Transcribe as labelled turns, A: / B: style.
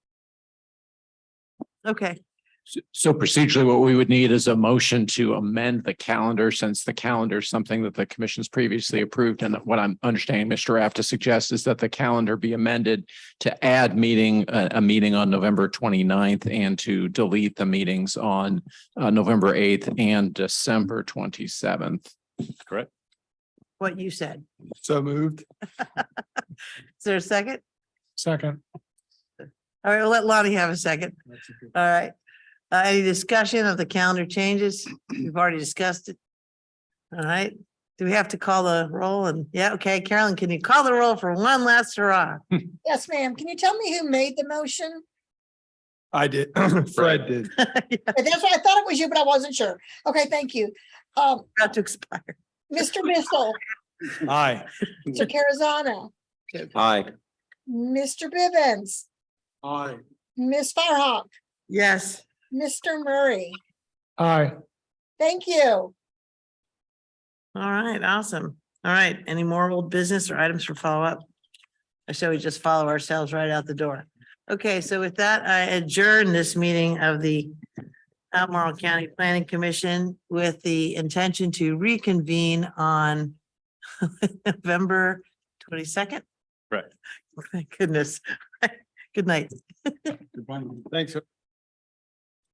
A: Okay,
B: S- So procedurally, what we would need is a motion to amend the calendar since the calendar is something that the commission's previously approved. And what I'm understanding Mr. Raff to suggest is that the calendar be amended to add meeting, a, a meeting on November 29th and to delete the meetings on uh, November eighth and December twenty-seventh.
A: what you said.
C: So moved.
A: Is there a second?
C: Second.
A: All right, we'll let Lonnie have a second. All right. Uh, any discussion of the calendar changes? We've already discussed it. All right, do we have to call the roll? And yeah, okay, Carolyn, can you call the roll for one last hurrah?
D: Yes, ma'am. Can you tell me who made the motion?
C: I did. Fred did.
D: Uh, That's what I thought it was you, but I wasn't sure. Okay, thank you. Um,
A: About to expire.
D: Mr. Bissell,
C: Aye.
D: Mr. Carazana,
E: Aye.
D: Mr. Bivens,
C: Aye.
D: Ms. Firehawk,
A: Yes,
D: Mr. Murray.
C: Aye.
D: Thank
A: all
D: you.
A: right, awesome. All right, any more old business or items for follow-up? Or shall we just follow ourselves right out the door? Okay, so with that, I adjourn this meeting of the Albemarle County Planning Commission with the intention to reconvene on November twenty-second.
B: Correct.
A: Thank goodness. Good night.
C: Thanks.